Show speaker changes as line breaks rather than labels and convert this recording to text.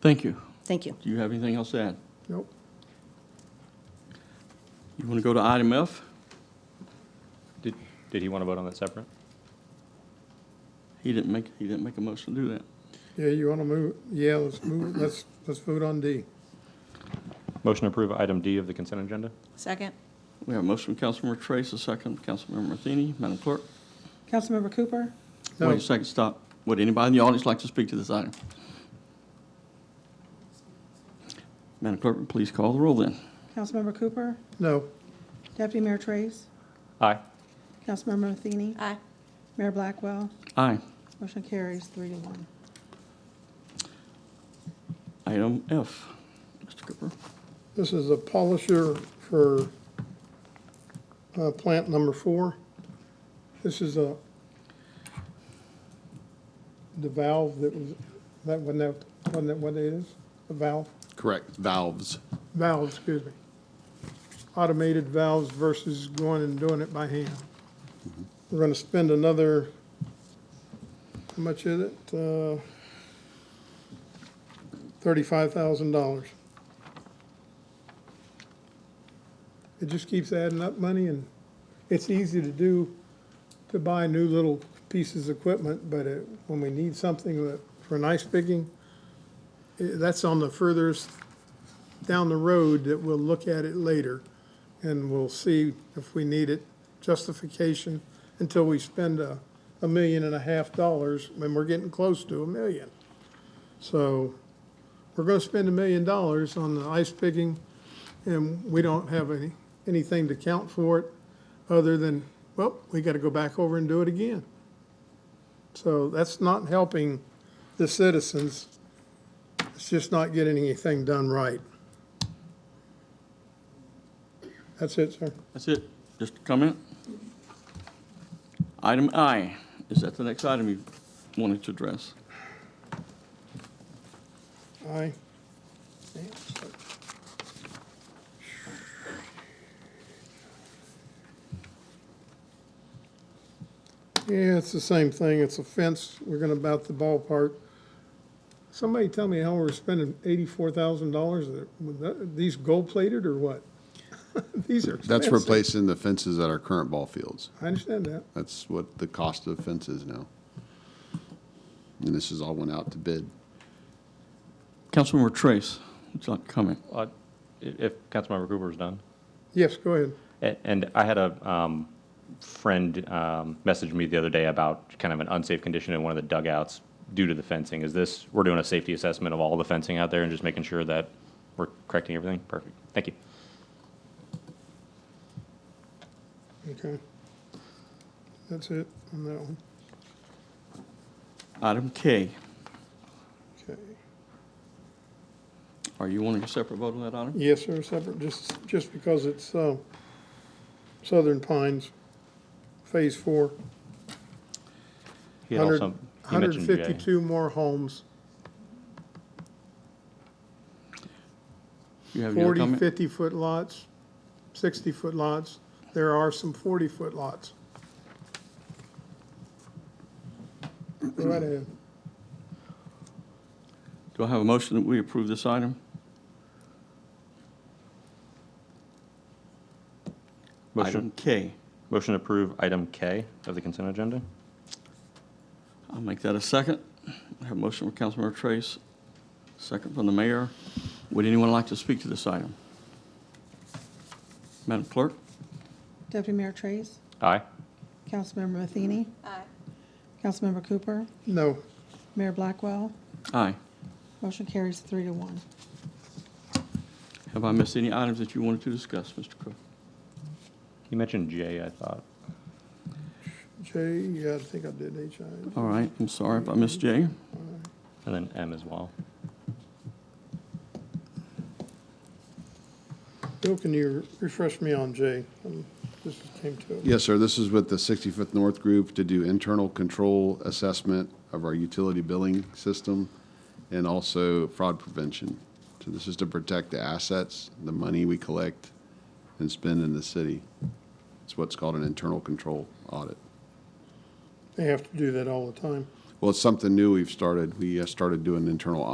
Thank you.
Thank you.
Do you have anything else to add?
Nope.
You want to go to item F?
Did, did he want to vote on that separate?
He didn't make, he didn't make a motion to do that.
Yeah, you want to move, yeah, let's move, let's, let's vote on D.
Motion to approve item D of the consent agenda?
Second?
We have a motion from Councilmember Trace, a second from Councilmember Matheny. Madam Clerk?
Councilmember Cooper,
No.
Wait a second, stop. Would anybody in the audience like to speak to this item? Madam Clerk, please call the roll then.
Councilmember Cooper,
No,
Deputy Mayor Trace,
Aye.
Councilmember Matheny,
Aye.
Mayor Blackwell,
Aye.
motion carries three to one.
Item F. Mr. Cooper?
this is a polisher for uh, plant number four. This is a, the valve that was, that wasn't that, wasn't that what it is? The valve?
Correct, valves.
Valves, excuse me. Automated valves versus going and doing it by hand. We're gonna spend another, how much is it? Uh, Thirty-five thousand dollars. It just keeps adding up money and it's easy to do, to buy new little pieces of equipment, but it, when we need something that- for an ice picking, eh, that's on the furthest down the road that we'll look at it later, and we'll see if we need it, justification, until we spend a, a million and a half dollars, when we're getting close to a million. So, we're gonna spend a million dollars on the ice picking, and we don't have any, anything to count for it, other than, well, we gotta go back over and do it again. So that's not helping the citizens, it's just not getting anything done right. That's it, sir.
That's it. Just a comment? Item I. Is that the next item you wanted to address?
Aye. Yeah, it's the same thing. It's a fence. We're gonna bout the ballpark. Somebody tell me how we're spending eighty-four thousand dollars. These gold-plated or what? These are
That's
expensive.
replacing the fences at our current ball fields.
I understand that.
That's what the cost of fence is now. And this is all went out to bid.
Councilmember Trace, would you like to comment?
Uh, i- If Councilmember Cooper is done.
Yes, go ahead.
A- And I had a um, friend um, message me the other day about kind of an unsafe condition in one of the dugouts due to the fencing. Is this, we're doing a safety assessment of all the fencing out there and just making sure that we're correcting everything? Perfect. Thank you.
Okay. That's it on that one.
Item K.
Okay.
Are you wanting a separate vote on that item?
Yes, sir, separate, just, just because it's, uh, Southern Pines, Phase Four.
He had also- he
Hundred
mentioned
and
J.
fifty-two more homes,
You have your
40,
comment?
50-foot lots, 60-foot lots. There are some 40-foot lots. Go right ahead.
Do I have a motion that we approve this item? Item
Motion,
K.
motion to approve item K of the consent agenda?
I'll make that a second. I have a motion from Councilmember Trace, second from the mayor. Would anyone like to speak to this item? Madam Clerk?
Deputy Mayor Trace,
Aye.
Councilmember Matheny,
Aye.
Councilmember Cooper,
No,
Mayor Blackwell,
Aye.
motion carries three to one.
Have I missed any items that you wanted to discuss, Mr. Cook?
He mentioned J, I thought.
J, yeah, I think I did H I.
All right, I'm sorry if I missed Jay.
And then M as well.
Bill, can you refresh me on J? Um, This came to it.
Yes, sir, this is with the 65th North Group to do internal control assessment of our utility billing system and also fraud prevention. So this is to protect the assets, the money we collect and spend in the city. It's what's called an internal control audit.
They have to do that all the time.
Well, it's something new we've started. We uh, started doing internal audits